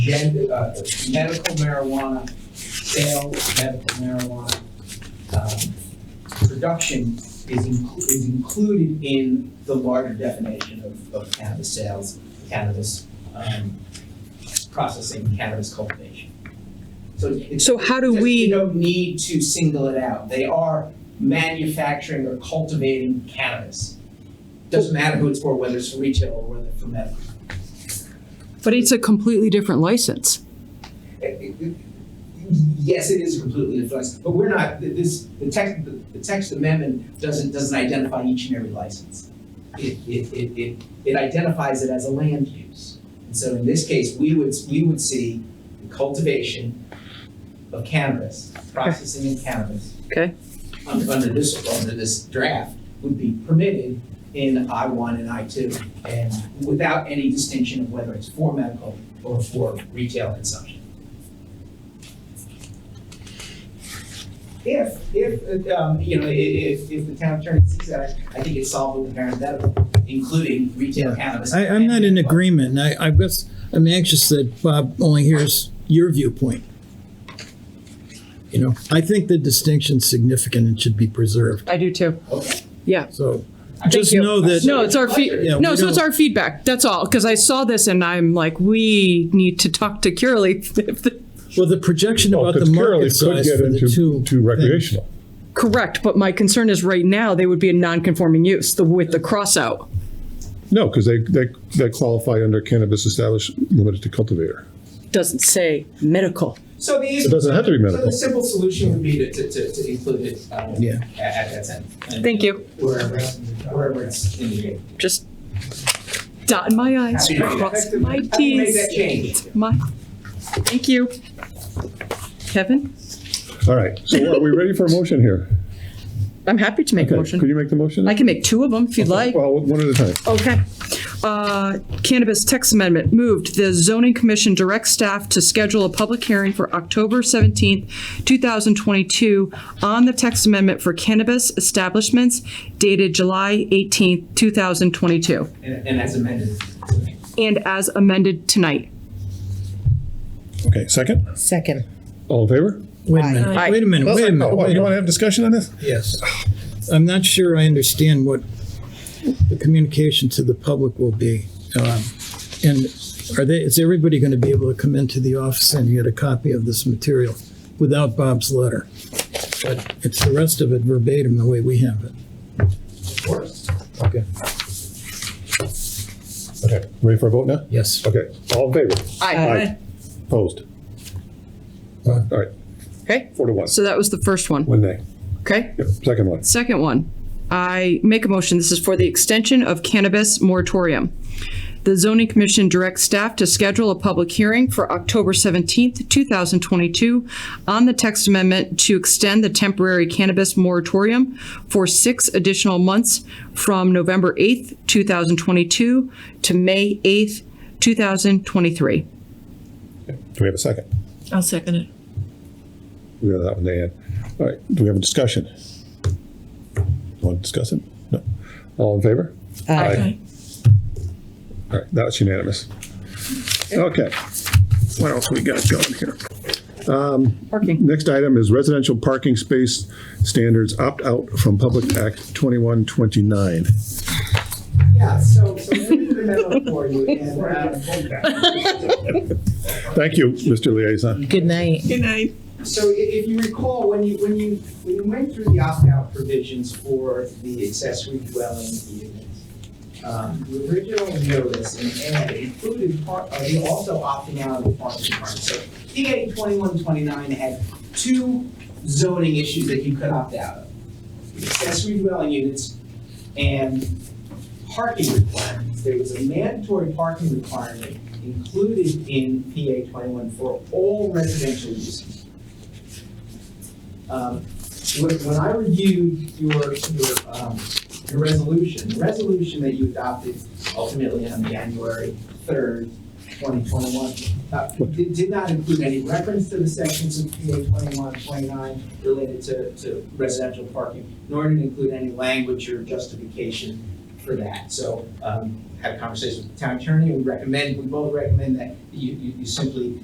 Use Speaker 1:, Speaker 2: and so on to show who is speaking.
Speaker 1: gender, uh, medical marijuana, sale of medical marijuana, um, production is inclu- is included in the larger definition of, of cannabis sales, cannabis, um, processing, cannabis cultivation. So it's.
Speaker 2: So how do
Speaker 1: Just, You
Speaker 2: we,
Speaker 1: don't need to single it out. They are manufacturing or cultivating cannabis. Doesn't matter who it's for, whether it's for retail or whether it's for medical.
Speaker 2: but it's a completely different license.
Speaker 1: Yes, it is completely flexible, but we're not, this, the text, the text amendment doesn't, doesn't identify each and every license. It, it, it, it, it identifies it as a land use. And so in this case, we would, we would see the cultivation of cannabis, processing of cannabis.
Speaker 2: Okay.
Speaker 1: un- Under this, under this draft would be permitted in I one and I two and without any distinction of whether it's for medical or for retail consumption. If, if, um, you know, i- i- if, if the town attorney sees that, I- I think it's solvable with parenthetical, including retail cannabis.
Speaker 3: I, I'm not in agreement. I, I guess, I'm anxious that Bob only hears your viewpoint. You know, I think the distinction's significant and should be preserved,
Speaker 2: I do too.
Speaker 1: Okay.
Speaker 3: so.
Speaker 1: I think
Speaker 3: Just
Speaker 1: you-
Speaker 3: know that-
Speaker 2: No, it's our feed,
Speaker 3: Yeah,
Speaker 2: no,
Speaker 3: we
Speaker 2: so it's
Speaker 3: don't-
Speaker 2: our feedback, that's all, because I saw this and I'm like, we need to talk to Curly.
Speaker 3: Well, the projection
Speaker 4: Well,
Speaker 3: about the
Speaker 4: because clearly
Speaker 3: market
Speaker 4: it could
Speaker 3: size
Speaker 4: get
Speaker 3: for the
Speaker 4: into
Speaker 3: two.
Speaker 4: to recreational.
Speaker 2: Correct, but my concern is right now, they would be a non-conforming use, the, with the cross out.
Speaker 4: No, because they, they, they qualify under cannabis established limited to cultivator.
Speaker 2: Doesn't say medical.
Speaker 1: So the easy.
Speaker 4: It doesn't have to be
Speaker 1: So the
Speaker 4: medical.
Speaker 1: simple solution would be to, to, to, to include it, um,
Speaker 3: Yeah.
Speaker 1: at, at that sentence.
Speaker 2: Thank you,
Speaker 1: Wherever, it's- wherever it's indicated.
Speaker 2: just dot my
Speaker 1: Happy
Speaker 2: i's,
Speaker 1: to do that.
Speaker 2: cross my
Speaker 1: How do you make that
Speaker 2: t's.
Speaker 1: change?
Speaker 2: My, thank you. Kevin,
Speaker 4: All right, so are we ready for a motion here?
Speaker 2: I'm happy to make a
Speaker 4: Okay, Could
Speaker 2: motion.
Speaker 4: you make the motion?
Speaker 2: I can make two of them if you'd like.
Speaker 4: Well, one at a time.
Speaker 2: Okay. Uh, Cannabis text amendment moved. The zoning commission directs staff to schedule a public hearing for October 17th, 2022 on the text amendment for cannabis establishments dated July 18th, 2022,
Speaker 1: And, and as amended.
Speaker 2: and as amended tonight.
Speaker 4: Okay, second?
Speaker 5: Second.
Speaker 4: All in favor?
Speaker 3: Wait a minute, wait a minute, wait a minute.
Speaker 4: Oh, what,
Speaker 3: wait
Speaker 4: you
Speaker 3: a-
Speaker 4: want to have discussion on this?
Speaker 3: Yes. I'm not sure I understand what the communication to the public will be. Um, And are they, is everybody going to be able to come into the office and get a copy of this material without Bob's letter? But it's the rest of it verbatim the way we have it.
Speaker 1: Of course.
Speaker 3: Okay.
Speaker 4: Okay, ready for a vote now?
Speaker 3: Yes.
Speaker 4: Okay, all in favor? Aye. Opposed? All right,
Speaker 2: Okay,
Speaker 4: four to one,
Speaker 2: so that was the first one.
Speaker 4: one nay.
Speaker 2: Okay?
Speaker 4: Yep, second one.
Speaker 2: Second one, I make a motion, this is for the extension of cannabis moratorium. The zoning commission directs staff to schedule a public hearing for October 17th, 2022 on the text amendment to extend the temporary cannabis moratorium for six additional months from November 8th, 2022 to May 8th, 2023.
Speaker 4: Do we have a second?
Speaker 5: I'll second it.
Speaker 4: We got that one to add. All right, do we have a discussion? Want to discuss it? No. All in favor? Aye. All right, that was unanimous. Okay. What else we got going here? Um,
Speaker 2: Parking.
Speaker 4: Next item is residential parking space standards opt-out from Public Act 2129.
Speaker 1: Yeah, so, so we did a memo for you and, um,
Speaker 4: Thank you, Mr. Liaison.
Speaker 5: Good night.
Speaker 2: Good night.
Speaker 1: So i- if you recall, when you, when you, when you went through the opt-out provisions for the accessory dwelling units, um, the original notice and ad included part, uh, they also opting out of the parking requirement. So DA twenty-one twenty-nine had two zoning issues that you could opt out of. Accessory dwelling units and parking requirements. There was a mandatory parking requirement included in PA twenty-one for all residential uses. Um, When, when I reviewed your, your, um, your resolution, the resolution that you adopted ultimately on January third, twenty twenty-one, uh, did, did not include any reference to the sections of PA twenty-one, twenty-nine related to, to residential parking, nor did it include any language or justification for that. So, um, had a conversation with the town attorney, we recommend, we both recommend that you, you, you simply